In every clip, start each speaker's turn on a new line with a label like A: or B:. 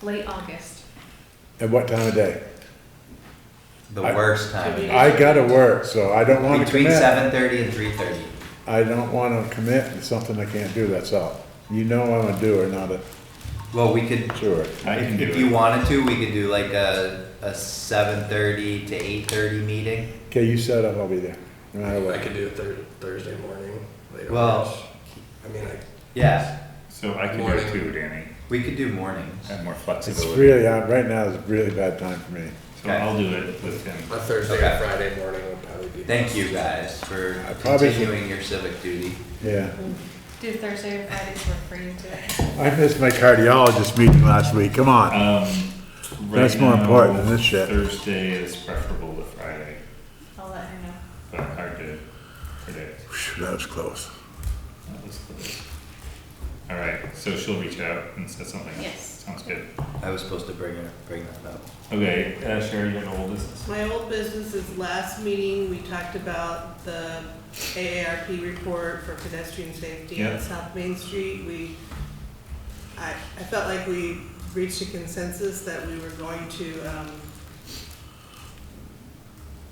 A: late August.
B: At what time of day?
C: The
B: I-
C: worst time.
B: I gotta work, so I don't wanna
C: Between
B: commit.
C: seven thirty and three thirty.
B: I don't wanna commit to something I can't do, that's all. You know I'm a doer, not a
C: Well, we could,
B: doer.
D: I can do
C: if you
D: it.
C: wanted to, we could do like a, a seven thirty to eight thirty meeting.
B: Okay, you set up, I'll be there, no matter
E: I
B: what.
E: could do it Thur- Thursday morning, later.
C: Well-
E: hours. I mean, I,
C: Yeah,
D: So I can do
E: Morning.
D: it too, Danny.
C: we could do mornings.
D: I have more
B: It's
D: flexibility.
B: really, uh, right now is a really bad time for me.
D: So I'll do it with him.
E: a Thursday
C: Okay.
E: or Friday morning would probably be.
C: Thank you guys for
B: I probably should-
C: continuing your civic duty.
B: Yeah.
A: Do Thursday or Fridays work for you today?
B: I missed my cardiologist meeting last week, come on.
D: Um,
B: That's
D: right
B: more
D: now,
B: important than this shit.
D: Thursday is preferable to Friday,
A: I'll let her know.
D: but hard to predict. Uh,
B: Phew, That was close.
D: That was close. All right, so she'll reach out and set something. up.
A: Yes.
D: Sounds good.
C: I was supposed to bring, bring that up.
D: Okay, uh, Sherry, you're the oldest.
F: My old business is last meeting, we talked about the AARP report for pedestrian safety
D: Yeah.
F: on South Main Street. We, I, I felt like we reached a consensus that we were going to, um,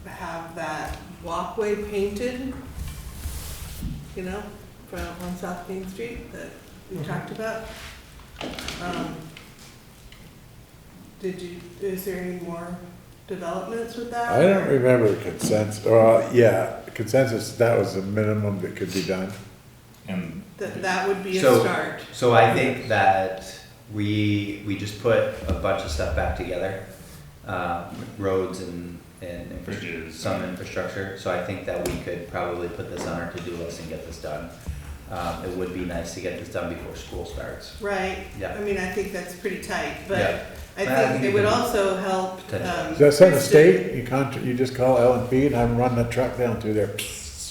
F: have that walkway painted, you know, from, on South Main Street that we talked about. Um, Did you, is there any more developments with that?
B: I don't remember the consensus, or, uh, yeah, consensus, that was the minimum that could be done.
D: And
F: That, that would be a
C: So-
F: start.
C: So I think that we, we just put a bunch of stuff back together, um, roads and, and infra-
D: Bridges.
C: some infrastructure. So I think that we could probably put this on our to-do list and get this done. Um, it would be nice to get this done before school starts,
F: Right,
C: Yeah.
F: I mean, I think that's pretty tight,
C: Yeah.
F: but I
C: Well, I think
F: think
C: you
F: it would
C: can-
F: also help.
C: Potentially.
F: um,
B: Is that something the
F: Kristen-
B: state, you contra, you just call L and B and have them run the truck down through there,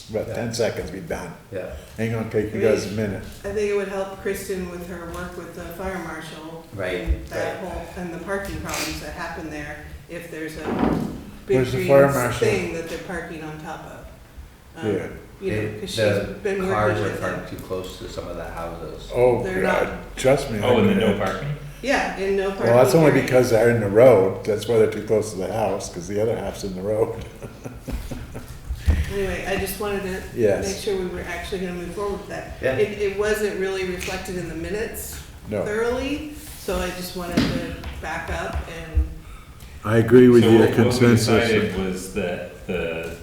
B: about ten seconds, be done.
C: yeah,
B: Ain't gonna take you guys a minute.
F: I think it would help Kristen with her work with the fire marshal.
C: Right,
F: and That
C: right.
F: whole, and the parking problems that happen there, if there's a big
B: Where's the
F: green
B: fire marshal?
F: thing that they're parking on top of. Um,
B: Yeah.
F: You know,
C: They-
F: because she's
C: the
F: been
C: Cars are
F: working with them.
C: parked too close to some of the houses.
B: Oh,
F: They're
B: God, trust me. I
D: oh, and then
B: couldn't.
D: no parking.
F: Yeah, in no parking.
B: Well, that's only
F: area.
B: because they're in the road, that's why they're too close to the house, cause the other half's in the road.
F: Anyway, I just wanted to
B: Yes.
F: make sure we were actually gonna move forward with that.
C: Yeah.
F: It, it wasn't really reflected in the minutes
B: No,
F: thoroughly, so I just wanted to back up and,
B: I agree with
D: so
B: you,
D: what
B: consensus.
D: we decided was that the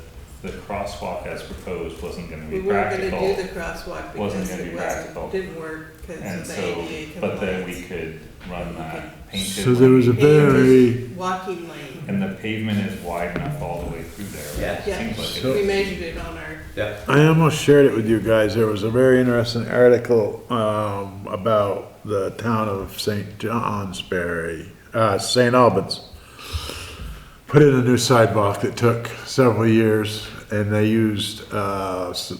D: the crosswalk as proposed wasn't going to
F: we
D: be
F: weren't gonna
D: practical,
F: do the crosswalk
D: Wasn't
F: because
D: gonna be
F: it
D: practical.
F: wasn't, didn't work because
D: and
F: of the
D: so
F: ADA
D: but then we
F: compliance.
D: could run that painted.
B: So there was a
D: lane,
B: very,
F: Walking lane,
D: and the pavement is wide enough all the way through there. right?
F: Yeah.
D: Seems like it.
B: So-
F: we measured it on our,
C: Yeah,
B: I almost shared it with you guys, there was a very interesting article, um, about the town of St. Johnsbury, uh, St. Albans. Put in a new sidewalk that took several years, and they used, uh, s-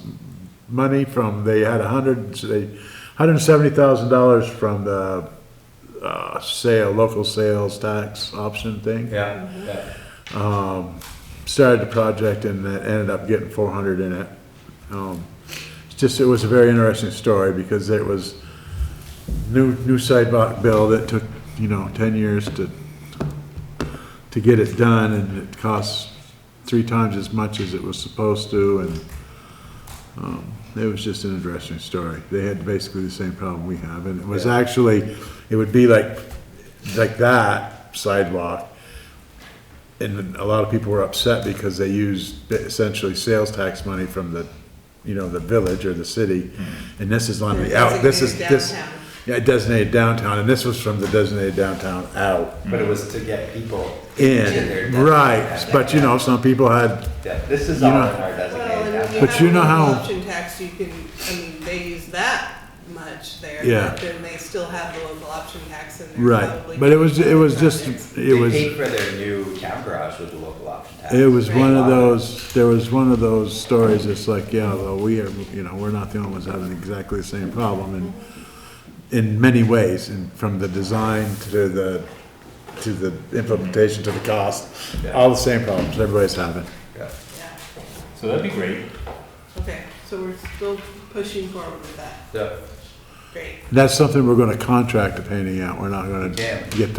B: money from, they had a hundred, they, hundred and seventy thousand dollars from the, uh, sale, local sales tax option thing
C: yeah,
F: Mm-hmm.
C: yeah.
B: um, started the project and that ended up getting four hundred in it. Um, it's just, it was a very interesting story because it was new, new sidewalk bill that took, you know, ten years to, to get it done and it cost three times as much as it was supposed to and, um, it was just an interesting story. They had basically the same problem we have and it was
C: Yeah.
B: actually, it would be like, like that sidewalk, and a lot of people were upset because they used essentially sales tax money from the, you know, the village or the city. And this is on the out, this is,
F: designated
B: this,
F: downtown.
B: yeah, designated downtown, and this was from the designated downtown out.
C: But it was to get people. to their
B: In,
C: designated
B: right, but you know, some people had,
C: Yeah, This is
B: You
C: all in
B: know-
C: our
F: well,
C: designated.
F: and
C: action.
F: you
B: But
F: have
B: you know
F: local
B: how-
F: option tax, you can, I mean, they use that much there.
B: Yeah.
F: But then they still have the local option tax in there probably.
B: right, but it was, it was
F: projects.
B: just, it was.
C: They paid for their new town garage with the local option tax.
B: It was one of those, there was one of those stories, it's like, yeah, though, we are, you know, we're not the only ones having exactly the same problem, and in many ways, and from the design to the, to the implementation to the cost, all the same problems everybody's having.
C: Yeah.
F: Yeah.
D: So that'd be great.
F: Okay, so we're still pushing forward with that,
C: So,
F: great.
B: That's something we're gonna contract the painting out, we're not gonna
C: Yeah.
B: get